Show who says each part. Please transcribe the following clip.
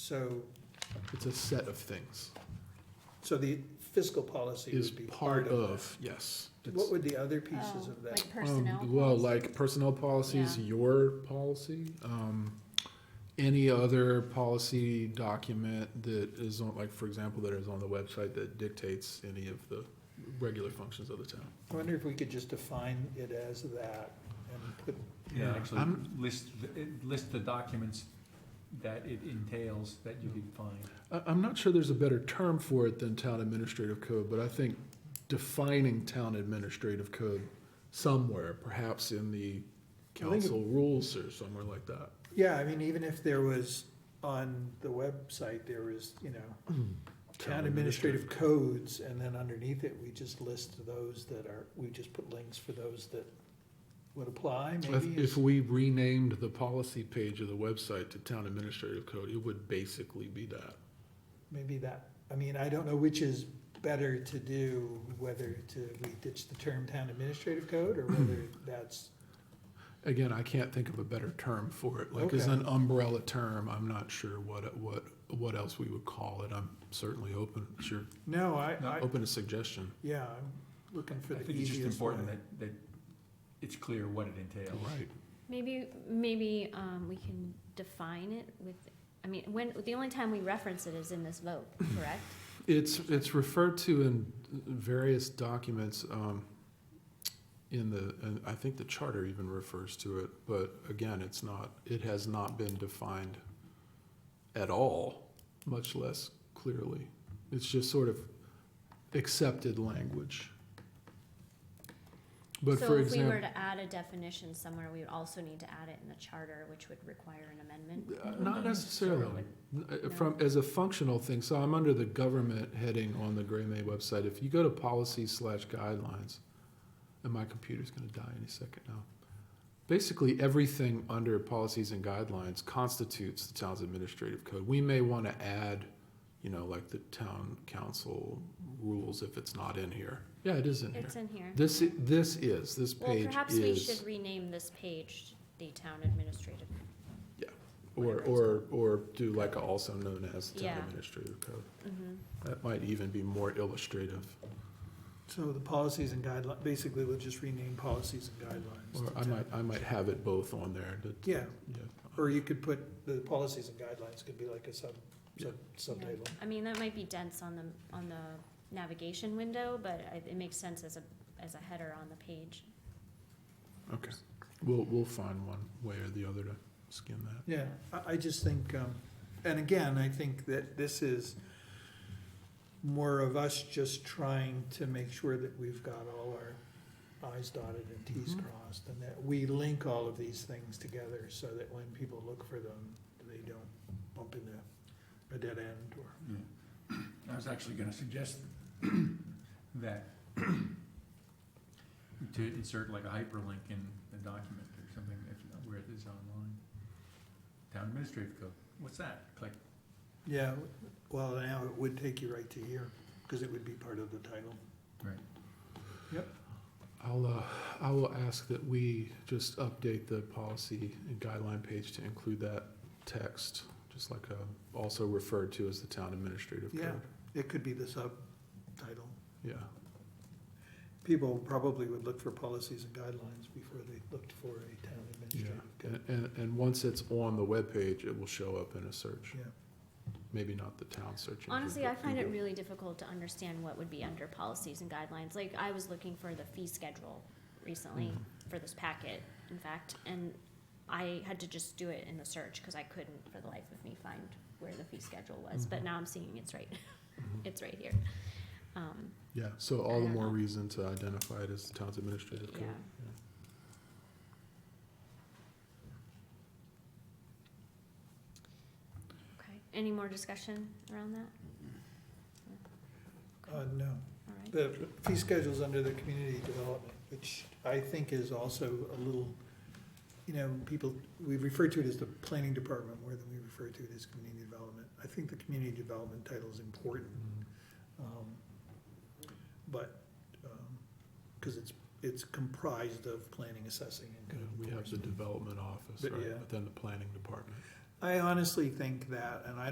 Speaker 1: So,
Speaker 2: It's a set of things.
Speaker 1: so the fiscal policy
Speaker 2: Is
Speaker 1: would be
Speaker 2: part of, yes.
Speaker 1: that.
Speaker 2: It's-
Speaker 1: What would the other pieces
Speaker 3: Oh,
Speaker 1: of that?
Speaker 3: Like
Speaker 2: Um,
Speaker 3: personnel?
Speaker 2: Well, like personnel policies,
Speaker 3: Yeah.
Speaker 2: your policy, um, any other policy document that is on, like, for example, that is on the website that dictates any of the regular functions of the town.
Speaker 1: I wonder if we could just define it as that and put,
Speaker 4: Yeah,
Speaker 2: Yeah.
Speaker 4: actually,
Speaker 2: I'm-
Speaker 4: list, the- it- list the documents that it entails that you could find.
Speaker 2: I, I'm not sure there's a better term for it than town administrative code, but I think defining town administrative code somewhere, perhaps in the
Speaker 1: I think it-
Speaker 2: council rules or somewhere like that.
Speaker 1: yeah, I mean, even if there was on the website, there was, you know, town administrative codes, and then underneath it, we just list those that are, we just put links for those that would apply,
Speaker 2: If,
Speaker 1: maybe?
Speaker 2: if we renamed the policy page of the website to town administrative code, it would basically be that.
Speaker 1: Maybe that, I mean, I don't know which is better to do, whether to, we ditch the term town administrative code, or whether that's
Speaker 2: Again, I can't think of a better term for it, like as
Speaker 1: Okay.
Speaker 2: an umbrella term, I'm not sure what, what, what else we would call it, I'm certainly open, sure,
Speaker 1: No, I, I,
Speaker 2: open to suggestion.
Speaker 1: yeah, I'm looking for
Speaker 4: I
Speaker 1: the
Speaker 4: think it's just
Speaker 1: easiest
Speaker 4: important
Speaker 1: one.
Speaker 4: that, that it's clear what it entails.
Speaker 2: Right,
Speaker 3: Maybe, maybe, um, we can define it with, I mean, when, the only time we reference it is in this vote, correct?
Speaker 2: it's, it's referred to in various documents, um, in the, and I think the charter even refers to it, but again, it's not, it has not been defined at all, much less clearly. It's just sort of accepted language. But for
Speaker 3: So if we were
Speaker 2: example,
Speaker 3: to add a definition somewhere, we would also need to add it in the charter, which would require an amendment.
Speaker 2: Uh, not necessarily, Uh, from, as a functional thing, so I'm under the government heading on the Gray May website. If you go to policy slash guidelines, and my computer's gonna die any second now. Basically, everything under policies and guidelines constitutes the town's administrative code. We may wanna add, you know, like the town council rules if it's not in here. Yeah, it is in here.
Speaker 3: It's in here.
Speaker 2: This, i- this is, this
Speaker 3: Well,
Speaker 2: page
Speaker 3: perhaps we should
Speaker 2: is,
Speaker 3: rename this page the town administrative.
Speaker 2: or, or, or do like a also known as town
Speaker 3: Yeah.
Speaker 2: administrative code.
Speaker 3: Mhm.
Speaker 2: That might even be more illustrative.
Speaker 1: So the policies and guidelines, basically, we'll just rename policies and guidelines.
Speaker 2: Or
Speaker 1: to
Speaker 2: I might,
Speaker 1: town.
Speaker 2: I might have it both on there. that-
Speaker 1: Yeah,
Speaker 2: yeah.
Speaker 1: or you could put, the policies and guidelines could be like a sub, sub,
Speaker 3: Yeah.
Speaker 1: subtitle.
Speaker 3: I mean, that might be dense on the, on the navigation window, but I- it makes sense as a, as a header on the page.
Speaker 2: We'll, we'll find one way or the other to skin that.
Speaker 1: Yeah, I, I just think, um, and again, I think that this is more of us just trying to make sure that we've got all our i's dotted and t's
Speaker 2: Mhm.
Speaker 1: crossed, and that we link all of these things together so that when people look for them, they don't bump into a dead end or.
Speaker 4: I was actually gonna suggest that to insert like a hyperlink in the document or something, if, where it is online. Town administrative code, what's that? Click,
Speaker 1: Yeah, well, now it would take you right to here, because it would be part of the title.
Speaker 2: I'll, uh, I will ask that we just update the policy and guideline page to include that text, just like, uh, also referred to as the town administrative
Speaker 1: Yeah.
Speaker 2: code.
Speaker 1: It could be the subtitle.
Speaker 2: Yeah,
Speaker 1: People probably would look for policies and guidelines before they looked for a town
Speaker 2: yeah.
Speaker 1: administrative
Speaker 2: And,
Speaker 1: code.
Speaker 2: and, and once it's on the webpage, it will show up in a search.
Speaker 1: Yeah.
Speaker 2: Maybe not the town search. engine,
Speaker 3: Honestly,
Speaker 2: but
Speaker 3: I find it
Speaker 2: Google.
Speaker 3: really difficult to understand what would be under policies and guidelines. Like, I was looking for the fee schedule recently
Speaker 2: Mm. Mm-hmm.
Speaker 3: for this packet, in fact, and I had to just do it in the search because I couldn't, for the life of me, find where the fee schedule was. But
Speaker 2: Mhm.
Speaker 3: now I'm seeing it's right,
Speaker 2: Mhm.
Speaker 3: it's right here. Um,
Speaker 2: Yeah, so all the
Speaker 3: don't
Speaker 2: more
Speaker 3: know.
Speaker 2: reason to identify it as the town's administrative code.
Speaker 3: Yeah. okay. Any more discussion around that? Okay,
Speaker 1: Uh, no,
Speaker 3: all right.
Speaker 1: the fee schedule's under the community development, which I think is also a little, you know, people, we refer to it as the planning department more than we refer to it as community development. I think the community development title is important. Um, But, because it's, it's comprised of planning, assessing, and
Speaker 2: Yeah,
Speaker 1: code
Speaker 2: We have the
Speaker 1: enforcement.
Speaker 2: development office,
Speaker 1: But
Speaker 2: right,
Speaker 1: yeah.
Speaker 2: but then the planning department.
Speaker 1: I honestly think that, and I